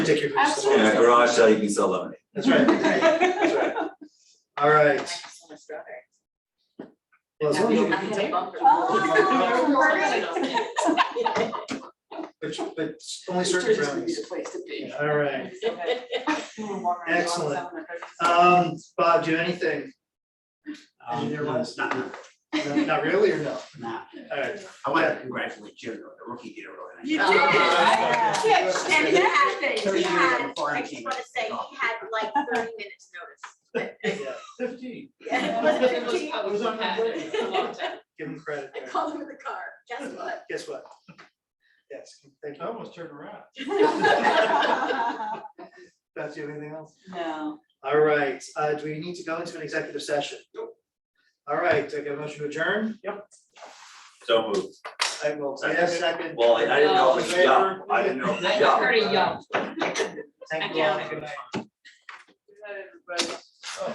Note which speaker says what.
Speaker 1: Take your.
Speaker 2: Absolutely.
Speaker 3: In a garage sale, you can sell lemonade.
Speaker 1: That's right, that's right. All right. Well, as long as you- Oh, But, but only certain brownies. All right. Excellent. Um, Bob, do you have anything?
Speaker 4: Um,
Speaker 1: Engineer
Speaker 4: no,
Speaker 1: wise?
Speaker 4: not, no,
Speaker 1: No, Not really, or no?
Speaker 4: not.
Speaker 1: All right.
Speaker 4: I want to congratulate Jim, though, the rookie did a really
Speaker 5: You
Speaker 4: nice.
Speaker 5: did,
Speaker 1: Yeah.
Speaker 5: right? Yeah, and that
Speaker 4: Thirty
Speaker 5: thing, he
Speaker 4: years
Speaker 5: had,
Speaker 4: before
Speaker 5: I
Speaker 4: I
Speaker 5: just
Speaker 4: came.
Speaker 5: wanna say, he had like thirty minutes notice.
Speaker 1: Yeah, Fifteen.
Speaker 5: Yeah, it
Speaker 1: Yeah.
Speaker 5: was fifteen,
Speaker 1: It was on my way.
Speaker 2: Well,
Speaker 1: Give him credit
Speaker 5: I
Speaker 1: there.
Speaker 5: called him in the car, guess what?
Speaker 1: Guess what? Yes, thank you.
Speaker 6: almost turned around.
Speaker 1: Beth, do you have anything else?
Speaker 2: No.
Speaker 1: All right, uh, do we need to go into an executive session? All right, do I get a motion to adjourn?
Speaker 3: So moved.
Speaker 1: I will, yes, second.
Speaker 3: Well, I I didn't know it was
Speaker 1: Favor?
Speaker 3: yum, I didn't know, it was yum.
Speaker 2: yum.
Speaker 1: Thank you all, good night.
Speaker 2: Everybody.